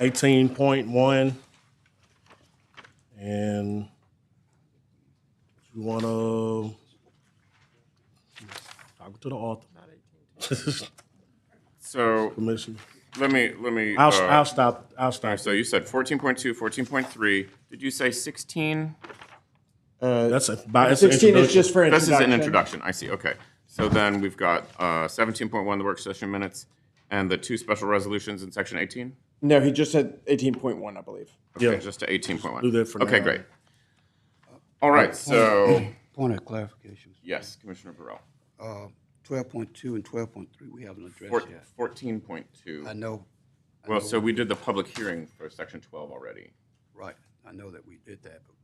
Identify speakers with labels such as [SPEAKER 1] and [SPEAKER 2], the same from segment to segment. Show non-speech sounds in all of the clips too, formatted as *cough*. [SPEAKER 1] eighteen point one. And you wanna talk to the author, *laughs*
[SPEAKER 2] So
[SPEAKER 1] commissioner.
[SPEAKER 2] let me, let me.
[SPEAKER 1] I'll,
[SPEAKER 2] uh,
[SPEAKER 1] I'll stop, I'll stop.
[SPEAKER 2] So you said 14.2, 14.3. Did you say 16?
[SPEAKER 1] That's a, by, it's an
[SPEAKER 3] Sixteen
[SPEAKER 1] introduction.
[SPEAKER 3] is just for
[SPEAKER 2] This
[SPEAKER 3] introduction.
[SPEAKER 2] is an introduction. I see. Okay. So then we've got uh, 17.1, the work session minutes, and the two special resolutions in section 18?
[SPEAKER 3] No, he just said eighteen point one, I believe.
[SPEAKER 2] Okay,
[SPEAKER 1] Yeah.
[SPEAKER 2] Just to 18.1.
[SPEAKER 1] Do that for now.
[SPEAKER 2] Okay,
[SPEAKER 1] Uh, oh.
[SPEAKER 2] great. All right, so,
[SPEAKER 1] *clears throat*
[SPEAKER 4] Point of clarification, Uh,
[SPEAKER 2] yes, Commissioner Burrell.
[SPEAKER 4] twelve point two and twelve point three, we haven't
[SPEAKER 2] Four-
[SPEAKER 4] addressed yet. I
[SPEAKER 2] 14.2.
[SPEAKER 4] know,
[SPEAKER 2] Well, so we did the public hearing for section 12 already.
[SPEAKER 4] right, I know that we did that, but,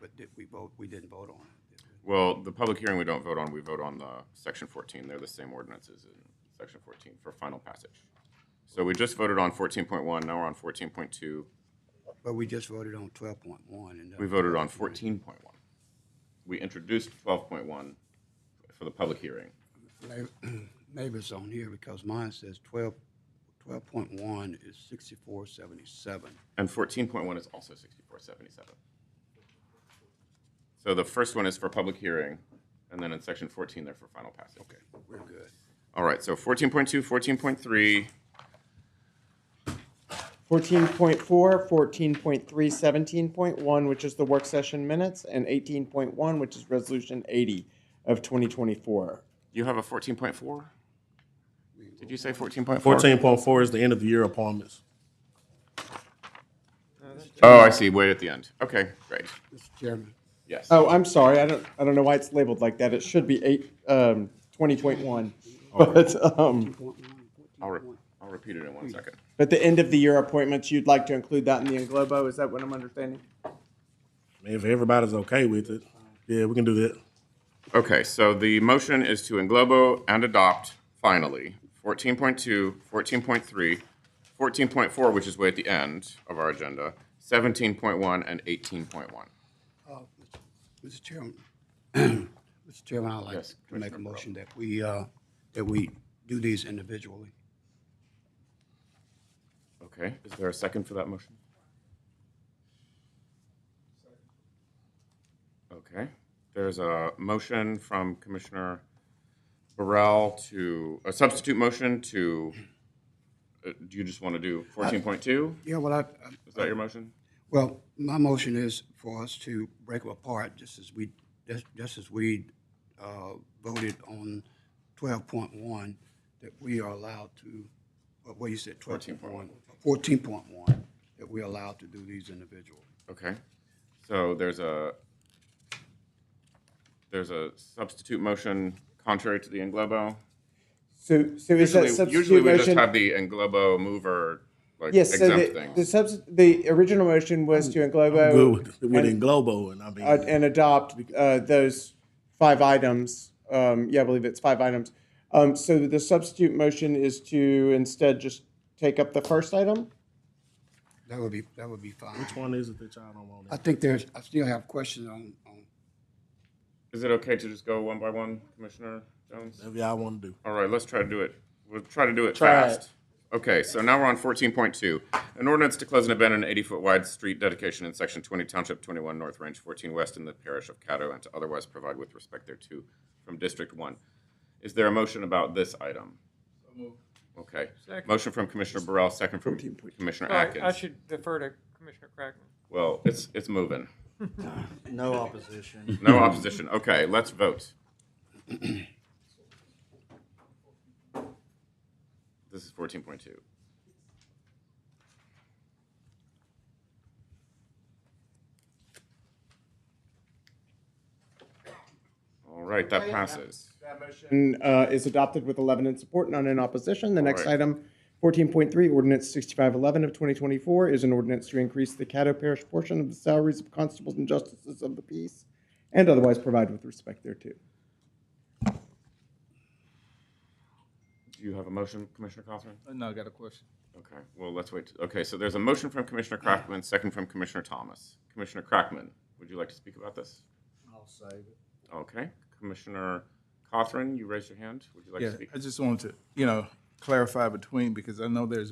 [SPEAKER 4] but did we vote, we didn't vote on it. did we?
[SPEAKER 2] Well, the public hearing we don't vote on, we vote on the section fourteen, they're the same ordinances in section fourteen for final passage. So we just voted on fourteen point one, now we're on fourteen point two,
[SPEAKER 4] But we just voted on twelve point one and. uh, that-
[SPEAKER 2] we voted on fourteen point one. We introduced twelve point one for the public hearing.
[SPEAKER 4] *clears throat* May- *clears throat* Maybe it's on here because mine says twelve, twelve point one is sixty-four seventy-seven.
[SPEAKER 2] And fourteen point one is also sixty-four seventy-seven. So the first one is for public hearing, and then in section fourteen, they're for final passage. Okay.
[SPEAKER 4] We're good.
[SPEAKER 2] All right, so fourteen point two, fourteen point three,
[SPEAKER 3] Fourteen point four, fourteen point three, seventeen point one, which is the work session minutes, and eighteen point one, which is resolution eighty of twenty twenty-four.
[SPEAKER 2] you have a fourteen point four? Did you say fourteen point four?
[SPEAKER 1] Fourteen point four is the end of the year appointments.
[SPEAKER 2] Oh, I see. Wait at the end. Okay, great.
[SPEAKER 4] Mr. Chairman,
[SPEAKER 2] Yes.
[SPEAKER 3] Oh, I'm sorry, I don't, I don't know why it's labeled like that, it should be eight, um, twenty point one. But, um,
[SPEAKER 2] I'll, re- I'll repeat it in one second.
[SPEAKER 3] but the end of the year appointments, you'd like to include that in the englobo, is that what I'm understanding?
[SPEAKER 1] If everybody's okay with it, yeah, we can do that.
[SPEAKER 2] Okay, so the motion is to englobo and adopt finally 14.2, 14.3, 14.4, which is way at the end of our agenda, 17.1, and 18.1.
[SPEAKER 4] Mr. Chairman, *clears throat* Mr. Uh, Chairman, I'd like
[SPEAKER 2] Yes,
[SPEAKER 4] to make
[SPEAKER 2] Commissioner
[SPEAKER 4] a
[SPEAKER 2] Burrow.
[SPEAKER 4] motion that we, uh, that we do these individually.
[SPEAKER 2] Okay, is there a second for that motion? Okay, there's a motion from Commissioner Burrell to, a substitute motion to, uh, do you just want to do 14.2?
[SPEAKER 4] Yeah, well, I,
[SPEAKER 2] Is that your motion?
[SPEAKER 4] Well, my motion is for us to break them apart, just as we, just- just as we uh, voted on 12.1, that we are allowed to, what what you said, 12.1? 14.1, that we are allowed to do these individually.
[SPEAKER 2] Okay, so there's a, there's a substitute motion contrary to the englobo.
[SPEAKER 3] So, so is
[SPEAKER 2] Usually-
[SPEAKER 3] that
[SPEAKER 2] Usually
[SPEAKER 3] substitute
[SPEAKER 2] we just
[SPEAKER 3] motion?
[SPEAKER 2] have the englobo mover, like
[SPEAKER 3] Yes, so
[SPEAKER 2] exempt
[SPEAKER 3] the,
[SPEAKER 2] thing.
[SPEAKER 3] the subs, the original motion was to
[SPEAKER 1] Good
[SPEAKER 3] englobo
[SPEAKER 1] with, with Englobo and I mean.
[SPEAKER 3] uh, and adopt uh, those five items. Um, yeah, I believe it's five items. Um, so the substitute motion is to instead just take up the first item?
[SPEAKER 4] That would be, that would be fine.
[SPEAKER 1] Which one is it that y'all don't want?
[SPEAKER 4] I think there's, I still have questions on, on-
[SPEAKER 2] Is it okay to just go one by one, Commissioner Jones?
[SPEAKER 1] Whatever y'all want to do.
[SPEAKER 2] All right, let's try to do it. We'll try to do it
[SPEAKER 3] Try
[SPEAKER 2] fast. Okay, so now we're on fourteen point two. An ordinance to close an abandoned eighty-foot wide street dedication in section twenty Township twenty-one North Range fourteen West in the parish of Caddo and to otherwise provide with respect thereto from District One. Is there a motion about this item? Okay. Motion from Commissioner Burrell, second from Commissioner
[SPEAKER 5] Sorry, I
[SPEAKER 2] Atkins.
[SPEAKER 5] should defer to Commissioner Crackman.
[SPEAKER 2] Well, it's, it's moving.
[SPEAKER 6] No opposition.
[SPEAKER 2] No opposition. Okay, let's vote. *clears throat* This is fourteen point two. All right, that passes.
[SPEAKER 3] That motion uh, is adopted with 11 in support, none in opposition. The next
[SPEAKER 2] right.
[SPEAKER 3] item, 14.3, ordinance 6511 of 2024, is an ordinance to increase the Caddo Parish portion of the salaries of constables and justices of the peace and otherwise provide with respect thereto.
[SPEAKER 2] Do you have a motion, Commissioner Cawthorn?
[SPEAKER 7] No, I got a question.
[SPEAKER 2] Okay, well, let's wait. Okay, so there's a motion from Commissioner Crackman, second from Commissioner Thomas. Commissioner Crackman, would you like to speak about this?
[SPEAKER 6] I'll save it.
[SPEAKER 2] Okay, Commissioner Cawthorn, you raised your hand. Would you like
[SPEAKER 7] Yeah,
[SPEAKER 2] to speak?
[SPEAKER 7] I just wanted to, you know, clarify between, because I know there's